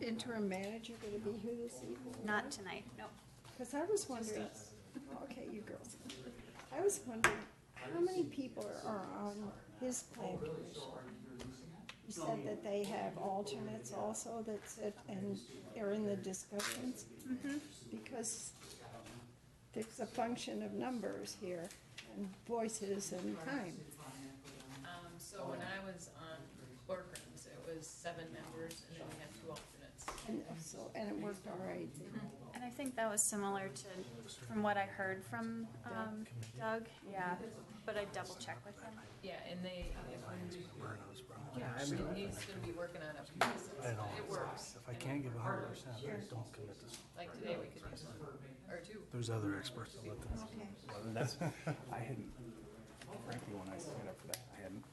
interim manager gonna be here this evening? Not tonight, no. Because I was wondering, okay, you girls, I was wondering, how many people are on his plan commission? You said that they have alternates also that sit and they're in the discussions? Because there's a function of numbers here, and voices and time. Um, so when I was on boardrooms, it was seven members and then we had two alternates. And so, and it worked all right. And I think that was similar to, from what I heard from um, Doug, yeah, but I double checked with him. Yeah, and they, if we, Yeah, I mean, he's gonna be working on a process, I know. but it works. If I can't give a hundred percent, don't commit to something. Like today, we could use one or two. There's other experts that look at Okay. Well, and that's, I hadn't, frankly, when I signed up for that, I hadn't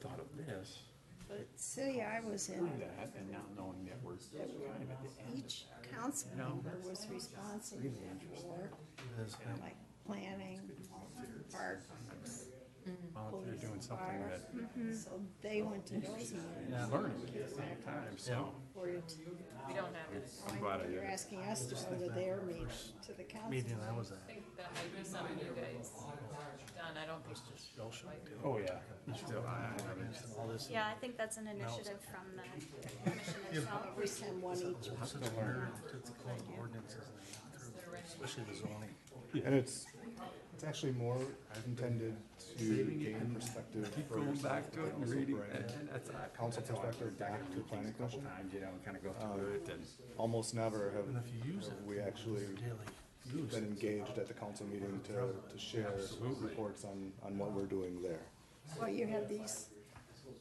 thought of this, But city I was in, that, and now knowing that we're kind of at the end. each council member was responsible for this. like planning, parks. Volunteer doing something fire. that So they went to those meetings Yeah. I'm learning at the same time, so. for you. to- We don't have it. I I'm glad I did You're it. asking us to go to their meeting, to the council. Meeting I was at, think that might be something you guys done. I don't think just Bill should do. Oh, yeah. Still, I, I mean, All this. Yeah, I think that's an initiative from the commission itself. We send one each. I'm such a nerd to the code ordinances and they go through, especially the zoning. And it's, it's actually more intended to gain perspective for going yourself, back the to it and council reading brain, it, and that's. I- Council that's how I perspective look back back at to things planning a couple commission. Um, Times, you know, kind of go through it and. Almost never have, And if you use have it. we actually Daily use. been engaged at the council meeting to, to share reports on, on what we're doing there. Well, you have these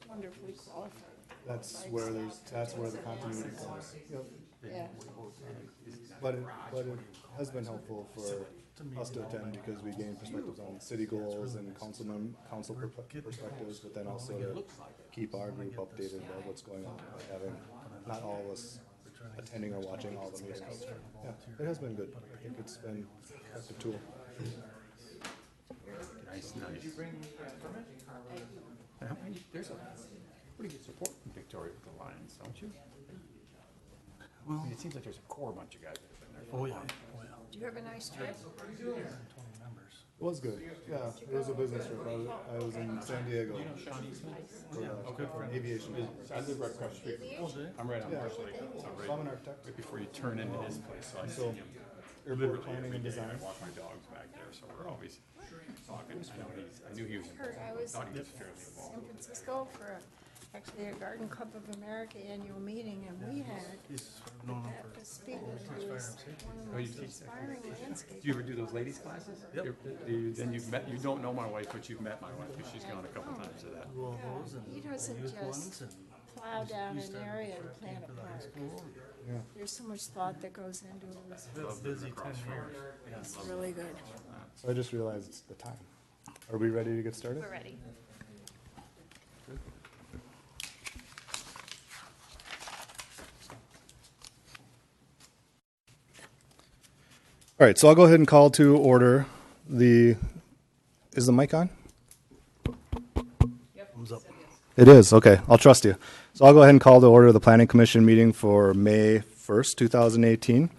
wonderfully qualified. That's where there's, that's where the continuity comes. Yep. Yeah, But it, but it has been helpful for us to attend because we gain perspectives on city goals and council mem, council per- perspectives, but then also to keep our group updated about what's going on, by having not all of us attending or watching all the meetings. Yeah, it has been good. I think it's been a tool. Nice, nice. And how many- There's a pretty good support in Victoria with the Lions, don't you? I Well, mean, it seems like there's a core bunch of guys that have been there. for a oh yeah, while. oh yeah. do you have a nice trip? Twenty members. It was good. Yeah, it was a business trip. I was, I was in San Diego for a- for an aviation conference. I live right across the street. from- I'm right on Yeah. Marsh Lake. It's all right So I'm an architect. right before you turn into this place, so I see So, him. airport Literally planning every and day, I design. walk my dogs back there, so we're always talking. I know he's, I knew he was Kurt, involved. I I was thought he in was fairly San involved. Francisco for a- actually a Garden Club of America annual meeting and we had He's known him for. the speaker who was one of the Oh, you most teach that? inspiring landscapers. Do you ever do those ladies' classes? Yep. Do you, then you've met, you don't know my wife, but you've met my wife, because she's gone a couple Oh. times to that. Well, those and He doesn't youth just ones and plow down used an to area and work plant for a the high park. school. Yeah. There's so much thought that goes into it. That's busy ten years. It's really good. So I just realized it's the time. Are we ready to get started? We're ready. All right, so I'll go ahead and call to order the, is the mic on? Thumbs up. It is, okay, I'll trust you. So I'll go ahead and call to order the planning commission meeting for May 1st, 2018.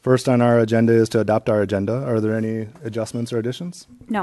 First on our agenda is to adopt our agenda. Are there any adjustments or additions? No.